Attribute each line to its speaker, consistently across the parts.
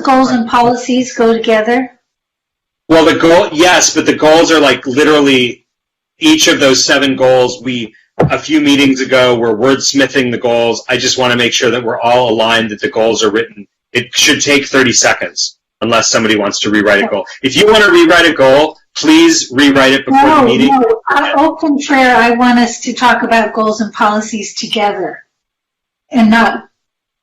Speaker 1: goals and policies go together?
Speaker 2: Well, the goal, yes, but the goals are like literally each of those seven goals. We a few meetings ago were wordsmithing the goals. I just want to make sure that we're all aligned that the goals are written. It should take 30 seconds unless somebody wants to rewrite a goal. If you want to rewrite a goal, please rewrite it before
Speaker 1: No,
Speaker 2: the meeting.
Speaker 1: no. I- Au contraire, I want us to talk about goals and policies together and not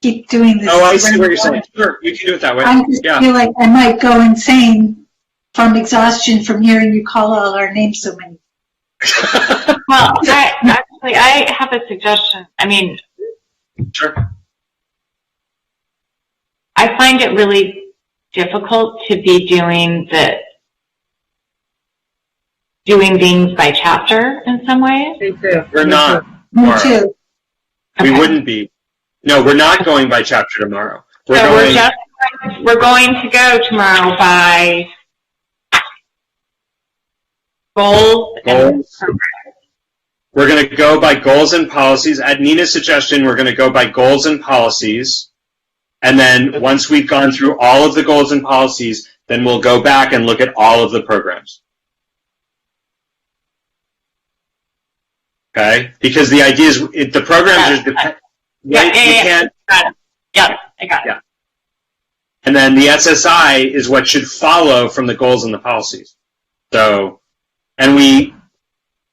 Speaker 1: keep doing this.
Speaker 2: Oh, I see what you're saying. Sure, we can do it that way.
Speaker 1: I just
Speaker 2: Yeah.
Speaker 1: feel like I might go insane from exhaustion from hearing you call all our names so many.
Speaker 3: Well, I, actually, I have a suggestion. I mean,
Speaker 2: Sure.
Speaker 3: I find it really difficult to be doing the doing things by chapter in some ways.
Speaker 4: Me too.
Speaker 2: We're
Speaker 4: Me
Speaker 2: not.
Speaker 1: Me
Speaker 2: Laura.
Speaker 1: too.
Speaker 2: We
Speaker 3: Okay.
Speaker 2: wouldn't be. No, we're not going by chapter tomorrow. We're
Speaker 3: so we're
Speaker 2: going.
Speaker 3: just going- we're going to go tomorrow by goals. And,
Speaker 2: Goals. We're going to go by goals and policies. At Nina's suggestion, we're going to go by goals and policies. And then once we've gone through all of the goals and policies, then we'll go back and look at all of the programs. Okay? Because the idea is it, the programs are depend-
Speaker 3: Yeah,
Speaker 2: right?
Speaker 3: yeah,
Speaker 2: you
Speaker 3: yeah.
Speaker 2: can't
Speaker 3: yeah, I got it.
Speaker 2: and then the SSI is what should follow from the goals and the policies. So, and we,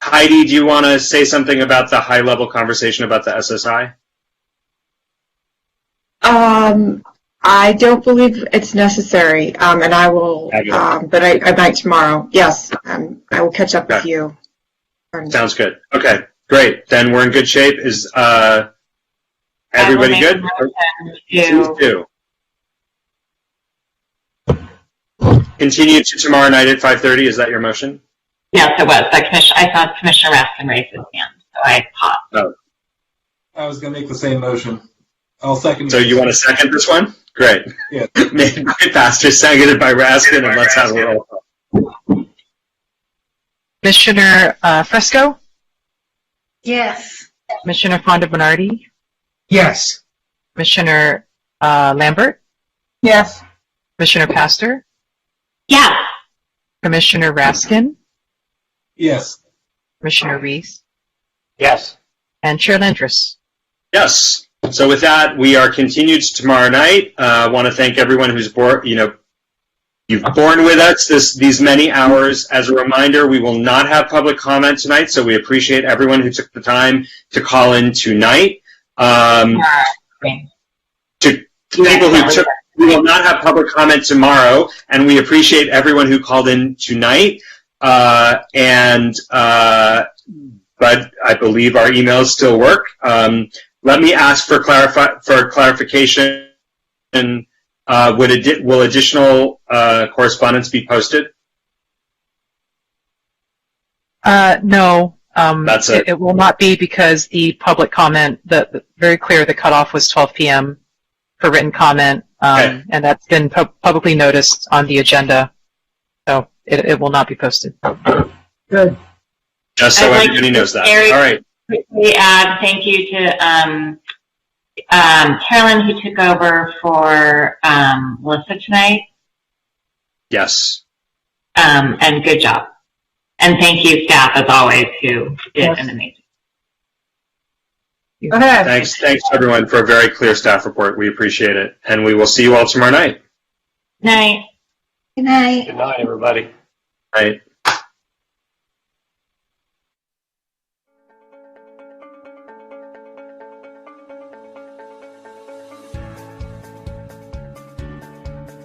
Speaker 2: Heidi, do you want to say something about the high level conversation about the SSI?
Speaker 4: Um, I don't believe it's necessary, um, and I will,
Speaker 2: Fabulous.
Speaker 4: um, but I, I might tomorrow. Yes, um, I will catch up with
Speaker 2: Okay.
Speaker 4: you. Um,
Speaker 2: Sounds good. Okay, great. Then we're in good shape. Is uh,
Speaker 3: I will
Speaker 2: everybody
Speaker 3: make
Speaker 2: good?
Speaker 3: a
Speaker 2: Please
Speaker 3: motion to-
Speaker 2: do. Continue to tomorrow night at 5.30. Is that your motion?
Speaker 3: Yes, it was. That commission, I saw Commissioner Raskin raise his hand, so I paused.
Speaker 5: I was gonna make the same motion. I'll second.
Speaker 2: So you want to second this one? Great.
Speaker 5: Yeah.
Speaker 2: Made by Pastor, seconded by Raskin, and let's have a roll. call.
Speaker 6: Commissioner uh, Fresco,
Speaker 1: Yes.
Speaker 6: Commissioner Fonda Bernardi,
Speaker 7: Yes.
Speaker 6: Commissioner uh, Lambert,
Speaker 7: Yes.
Speaker 6: Commissioner Pastor,
Speaker 3: Yeah.
Speaker 6: Commissioner Raskin,
Speaker 5: Yes.
Speaker 6: Commissioner Reese,
Speaker 7: Yes.
Speaker 6: and Chair Landris.
Speaker 2: Yes. So with that, we are continued to tomorrow night. Uh, I want to thank everyone who's bor- you know, you've borne with us this these many hours. As a reminder, we will not have public comment tonight, so we appreciate everyone who took the time to call in tonight. Um,
Speaker 3: Uh,
Speaker 2: to people who took we will not have public comment tomorrow, and we appreciate everyone who called in tonight. Uh, and uh, but I believe our emails still work. Um, let me ask for clarify for clarification. And uh, would addi- will additional uh, correspondence be posted?
Speaker 6: Uh, no, um,
Speaker 2: That's it.
Speaker 6: it, it will not be because the public comment, the, the- very clear, the cutoff was 12 p.m. for written comment, um,
Speaker 2: Okay.
Speaker 6: and that's been pub publicly noticed on the agenda. So it, it will not be posted.
Speaker 2: Just so
Speaker 3: I'd like
Speaker 2: everybody knows that.
Speaker 3: Eric-
Speaker 2: All right.
Speaker 3: quickly add thank you to um, um, Carolyn, who took over for um, Melissa tonight,
Speaker 2: Yes.
Speaker 3: um, and good job. And thank you, staff, as always, who did
Speaker 7: Yes.
Speaker 3: an amazing.
Speaker 7: Okay.
Speaker 2: Thanks. Thanks everyone for a very clear staff report. We appreciate it, and we will see you all tomorrow night.
Speaker 3: Night.
Speaker 1: Good night.
Speaker 5: Good night, everybody.
Speaker 2: All right.